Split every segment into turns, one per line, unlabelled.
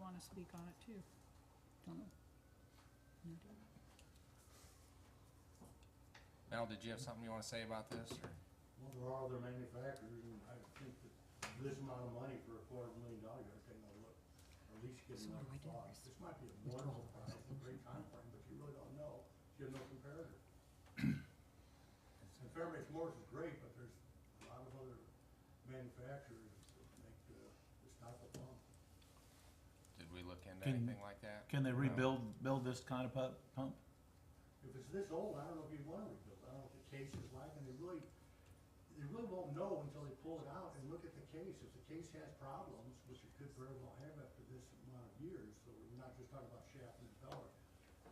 want to speak on it too.
Don't know. No, don't know.
Mel, did you have something you wanna say about this, or?
Well, there are other manufacturers, and I think that this amount of money for a quarter of a million dollars, you gotta take a look. Or at least get
So what do I
another
do?
thought. This might be a
Withdraw.
wonderful price, a great timeframe, but you really don't know. You have no comparator. And Fairbanks Morris is great, but there's a lot of other manufacturers that make the, this type of pump.
Did we look into
Can-
anything like that?
Can they
No.
rebuild, build this kind of pu- pump?
If it's this old, I don't know if you'd wanna rebuild. I don't know what the case is like, and they really, they really won't know until they pull it out and look at the case. If the case has problems, which it could very well have after this amount of years, so we're not just talking about shaft and impeller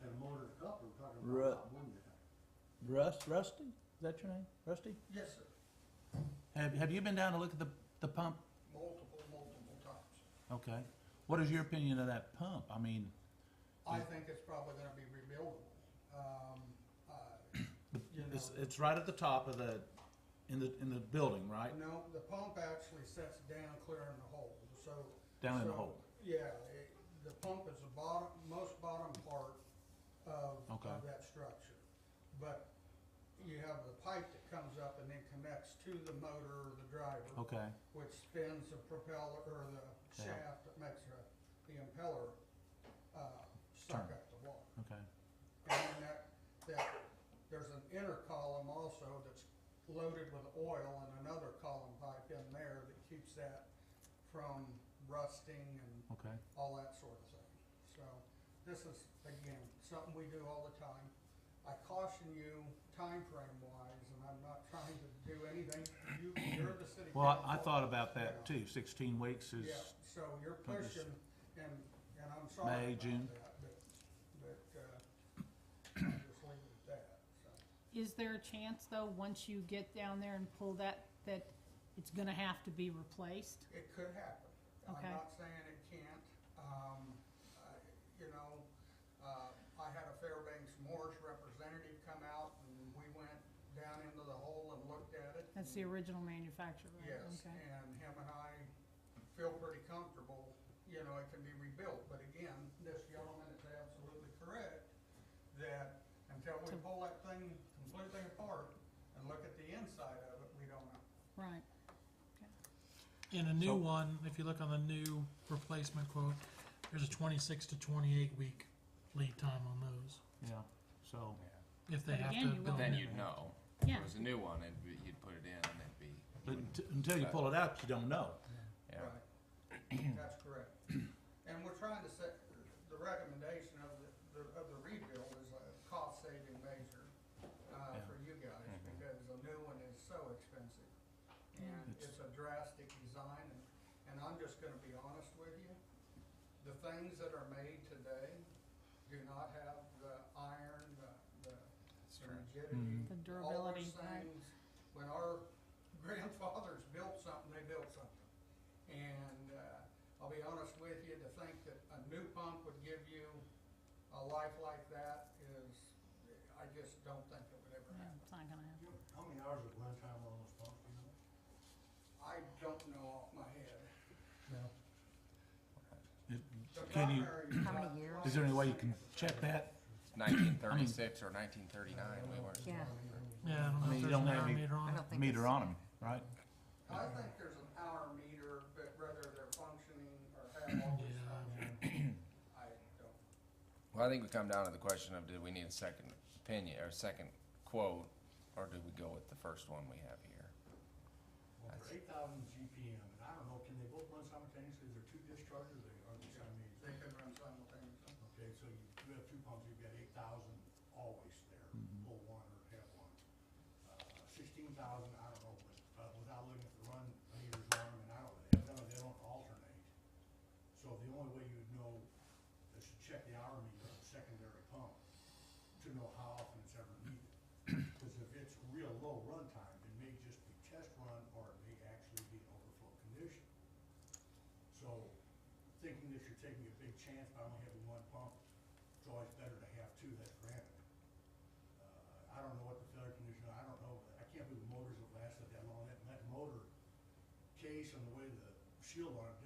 and a motor and a coupler, we're talking about a lot more than that.
Rust, Rusty? Is that your name? Rusty?
Yes, sir.
Have, have you been down to look at the, the pump?
Multiple, multiple times.
Okay. What is your opinion of that pump? I mean, Mm.
I think it's probably gonna be rebuildable. Um, uh, you
it's,
know,
it's right at the top of the, in the, in the building, right?
no, the pump actually sets down clear in the hole, so.
Down in the
so,
hole.
Yeah, it- the pump is the bottom, most bottom part of,
Okay.
of that structure. But you have the pipe that comes up and then connects to the motor or the driver.
Okay.
which spins the propeller, or the
Yeah.
shaft that makes the, the impeller, uh, suck
Turn.
up the water.
Okay.
And then that, that, there's an inner column also that's loaded with oil and another column pipe in there that keeps that from rusting and
Okay.
all that sort of thing. So this is, again, something we do all the time. I caution you time frame wise, and I'm not trying to do anything, you, you're the city
Well, I- I
council.
thought about
Yeah.
that too. Sixteen weeks
Yeah,
is,
so you're
I'm just-
pushing, and, and I'm sorry
May,
about
June.
that, but, but, uh, I'll just leave it at that, so.
Is there a chance though, once you get down there and pull that, that it's going to have to be replaced?
It could happen. I'm
Okay.
not saying it can't. Um, I- You know, uh, I had a Fairbanks Morris representative come out, and we went down into the hole and looked at it.
That's the original manufacturer, right?
Yes,
Okay.
and him and I feel pretty comfortable, you know, it can be rebuilt, but again, this gentleman is absolutely correct, that until we pull that thing completely apart and look at the inside of it, we don't know.
Right.
In a new
So-
one, if you look on the new replacement quote, there's a 26 to 28 week lead time on those.
yeah, so.
If they
But
have
again, you
to
won't
build
Then
new.
you'd know. If
Yeah.
it was a new one, it'd be, you'd put it in and it'd be,
But unt- until you pull it out, you don't know.
yeah.
Right. That's correct. And we're trying to set, the recommendation of the, the- of the rebuild is a cost-saving measure uh,
Yeah.
for you guys, because a new one is so expensive. And
It's-
it's a drastic design, and, and I'm just gonna be honest with you, the things that are made today do not have the iron, the, the rigidity.
The
all those
durability, right.
things. When our grandfathers built something, they built something. And uh, I'll be honest with you, to think that a new pump would give you a life like that is, I just don't think it would ever
Yeah,
happen.
It's not going to happen.
You know, How many hours of runtime on this pump, you know?
I don't know off my head.
It-
The
Can you,
primary is
How many
not-
years?
is there any way you can check that?
Nineteen thirty-six or nineteen thirty-nine, we were.
Yeah,
Yeah, I don't know
I mean,
if
you
there's
don't
an
have
hour
any-
meter
I
on it.
don't think.
Meter
it's-
on them, right?
I think there's an hour meter, but whether they're functioning or have all this
Yeah.
function, I don't.
Well, I think we come down to the question of, did we need a second opinion, or second quote, or did we go with the first one we have here?
Well,
That's-
for eight thousand GPM, and I don't know, can they both run simultaneously? Is there two discharges, or are they simultaneous?
They can run simultaneously.
Okay, so you you have two pumps, you've got eight thousand always there, pull one or have one. Uh, Sixteen thousand, I don't know, but uh, without looking at the run meters on them, and I don't, they don't, they don't alternate. So the only way you'd know is to check the hour meter on the secondary pump to know how often it's ever needed. Because if it's real low runtime, it may just be test run or it may actually be an overflow condition. So thinking that you're taking a big chance by only having one pump, it's always better to have two, that's granted. Uh, I don't know what the failure condition, I don't know, I can't believe the motors have lasted that long, that, that motor case and the way the shield on it